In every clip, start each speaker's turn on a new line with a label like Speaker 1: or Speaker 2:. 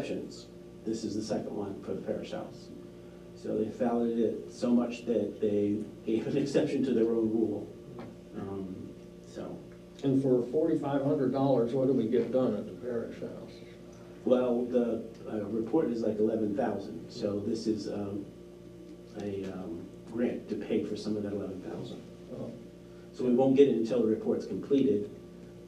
Speaker 1: exceptions. This is the second one for the parish house. So they followed it so much that they gave an exception to their own rule. Um, So,
Speaker 2: And for forty-five hundred dollars, what do we get done at the parish house?
Speaker 1: well, the uh, report is like eleven thousand, so this is um, a um, grant to pay for some of that eleven thousand.
Speaker 2: Oh,
Speaker 1: So we won't get it until the report's completed.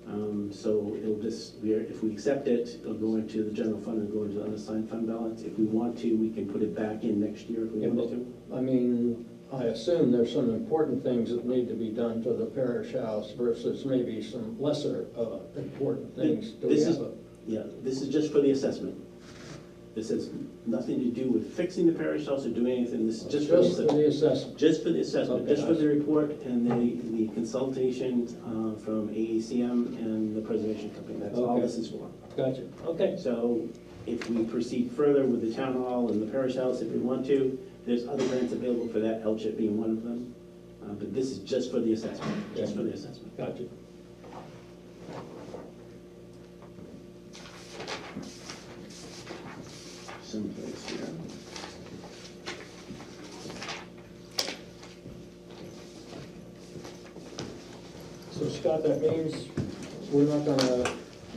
Speaker 1: Um, So it'll just, we're, if we accept it, it'll go into the general fund and go into the unassigned fund balance. If we want to, we can put it back in next year if we
Speaker 2: Yeah,
Speaker 1: want
Speaker 2: but-
Speaker 1: to.
Speaker 2: I mean, I assume there's some important things that need to be done to the parish house versus maybe some lesser, uh, important things. Do we
Speaker 1: This is-
Speaker 2: have a-
Speaker 1: Yeah, this is just for the assessment. This has nothing to do with fixing the parish house or doing anything, this is just for the
Speaker 2: Just for
Speaker 1: assessment.
Speaker 2: the assessment.
Speaker 1: Just for the assessment,
Speaker 2: Okay.
Speaker 1: just for the report and the, the consultation uh, from AECM and the preservation company, that's all
Speaker 2: Okay.
Speaker 1: this is for.
Speaker 2: Gotcha, okay.
Speaker 1: So if we proceed further with the town hall and the parish house, if we want to, there's other grants available for that, LCHIP being one of them. Uh, But this is just for the assessment, just for the assessment.
Speaker 2: Gotcha.
Speaker 1: someplace here.
Speaker 2: So Scott, that means we're not gonna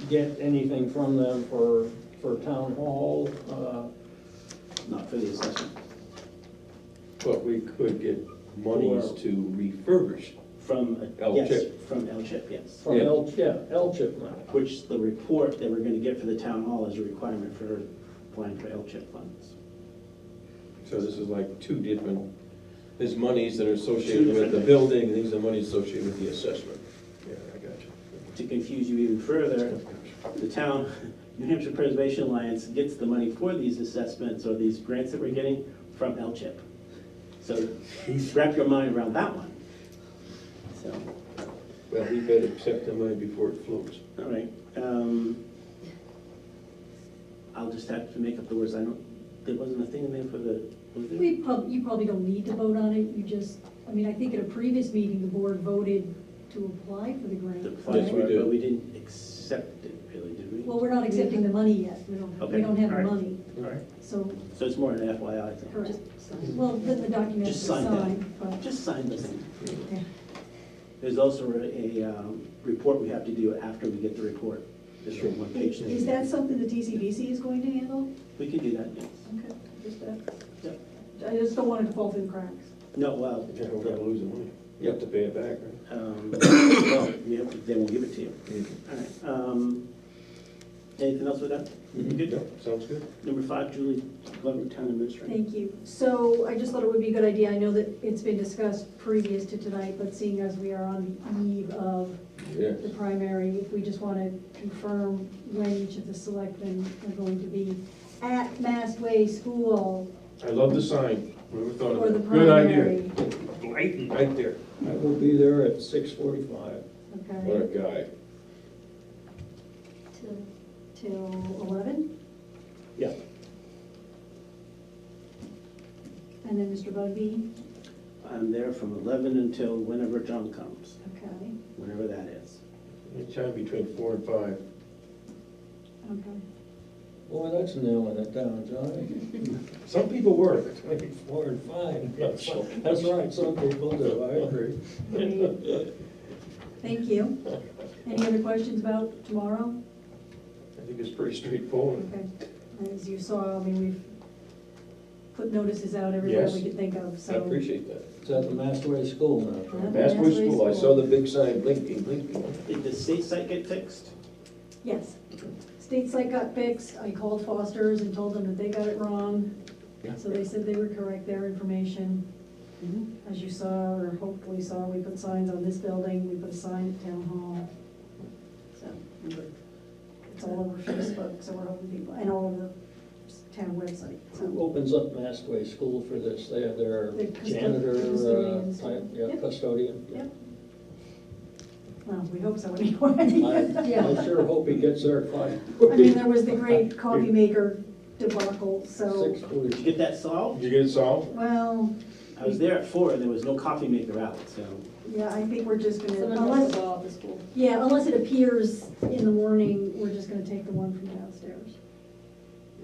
Speaker 2: get anything from them for, for town hall, uh,
Speaker 1: Not for the assessment,
Speaker 3: But we could get monies
Speaker 1: Or-
Speaker 3: to refurbish.
Speaker 1: from,
Speaker 3: L
Speaker 1: yes,
Speaker 3: chip.
Speaker 1: from LCHIP, yes.
Speaker 2: from
Speaker 3: Yeah.
Speaker 2: L, yeah, L chip money.
Speaker 1: Which the report that we're gonna get for the town hall is a requirement for applying for LCHIP funds.
Speaker 3: So this is like two different, there's monies that are
Speaker 1: Two
Speaker 3: associated with
Speaker 1: different
Speaker 3: the
Speaker 1: things.
Speaker 3: building, and these are monies associated with the assessment. Yeah, I got you.
Speaker 1: To confuse you even further, the town, New Hampshire Preservation Alliance gets the money for these assessments or these grants that we're getting from LCHIP. So wrap your mind around that one. So,
Speaker 3: Well, we better accept the money before it floats.
Speaker 1: all right. um, I'll just have to make up the words. I don't, there wasn't a thing in there for the, was there?
Speaker 4: We prob, you probably don't need to vote on it, you just, I mean, I think at a previous meeting, the board voted to apply for the grant.
Speaker 1: The
Speaker 3: Yes,
Speaker 1: plan,
Speaker 3: we
Speaker 4: right?
Speaker 3: did.
Speaker 1: but we didn't accept it really, did we?
Speaker 4: Well, we're not accepting the money yet, we don't,
Speaker 1: Okay,
Speaker 4: we don't have
Speaker 1: all
Speaker 4: the
Speaker 1: right.
Speaker 4: money,
Speaker 1: All right.
Speaker 4: so,
Speaker 1: So it's more an FYI thing.
Speaker 4: correct. Well, then the document is
Speaker 1: Just sign
Speaker 4: signed,
Speaker 1: that.
Speaker 4: but,
Speaker 1: Just sign this thing.
Speaker 4: okay.
Speaker 1: There's also a, um, report we have to do after we get the report. This
Speaker 3: Sure.
Speaker 1: one page thing.
Speaker 4: Is that something the DCBC is going to handle?
Speaker 1: We can do that, yes.
Speaker 4: Okay, just that,
Speaker 1: Yep.
Speaker 4: I just don't want it to fall through the cracks.
Speaker 1: No, well,
Speaker 3: We're gonna lose the money. You have to pay it back, right?
Speaker 1: um, well, we have- they won't give it to you. All right. um, Anything else with that? You good?
Speaker 3: Yeah, Mm-hmm. Sounds good.
Speaker 1: Number five, Julie Glover, Town Administrator.
Speaker 4: Thank you. So I just thought it would be a good idea, I know that it's been discussed previous to tonight, but seeing as we are on the eve of
Speaker 3: Yeah.
Speaker 4: the primary, if we just want to confirm when each of the selectmen are going to be at Massway School
Speaker 3: I love the sign. Never thought
Speaker 4: for the
Speaker 3: of it. Good idea.
Speaker 4: primary.
Speaker 3: Lighting right there.
Speaker 2: I will be there at six forty-five.
Speaker 3: What
Speaker 4: Okay,
Speaker 3: a guy.
Speaker 4: till, till eleven,
Speaker 1: Yeah.
Speaker 4: and then Mr. Bugby,
Speaker 1: I'm there from 11 until whenever John comes,
Speaker 4: okay,
Speaker 1: whenever that is.
Speaker 3: Anytime between four and five.
Speaker 4: okay.
Speaker 2: Boy, that's nailing it down, Johnny.
Speaker 3: Some people work.
Speaker 2: Between four and five.
Speaker 3: Yeah, so-
Speaker 2: That's right, some people do, I agree.
Speaker 4: Great. Thank you. Any other questions about tomorrow?
Speaker 3: I think it's pretty straightforward.
Speaker 4: Okay, as you saw, I mean, we've put notices out everywhere we
Speaker 3: Yes.
Speaker 4: could think of,
Speaker 3: I
Speaker 4: so.
Speaker 3: appreciate that.
Speaker 2: It's at the Mastway School now.
Speaker 4: Yeah.
Speaker 3: Mass Way
Speaker 4: Massway
Speaker 3: School, I saw
Speaker 4: School.
Speaker 3: the big sign blinking, blinking.
Speaker 1: Did the state site get fixed?
Speaker 4: Yes. State site got fixed, I called Foster's and told them that they got it wrong, so they said they would correct their information. As you saw, or hopefully saw, we put signs on this building, we put a sign at town hall. So, it's all over Facebook, so we're hoping people, and all over the town website,
Speaker 2: Who
Speaker 4: so.
Speaker 2: opens up Mastway School for this? They have their
Speaker 4: The custo-
Speaker 2: janitor uh,
Speaker 4: custodians.
Speaker 2: type, yeah,
Speaker 4: Yep.
Speaker 2: custodian.
Speaker 4: Yep. Well, we hope so anyway.
Speaker 2: I
Speaker 4: Yeah.
Speaker 2: I sure hope he gets there at five.
Speaker 4: I mean, there was the great coffee maker debacle, so,
Speaker 2: Six
Speaker 1: Did you
Speaker 2: forty.
Speaker 1: get that solved?
Speaker 3: You get it solved?
Speaker 4: well,
Speaker 1: I was there at four and there was no coffee maker out, so.
Speaker 4: yeah, I think we're just gonna,
Speaker 5: Someone knows
Speaker 4: unless,
Speaker 5: about the school.
Speaker 4: yeah, unless it appears in the morning, we're just gonna take the one from downstairs.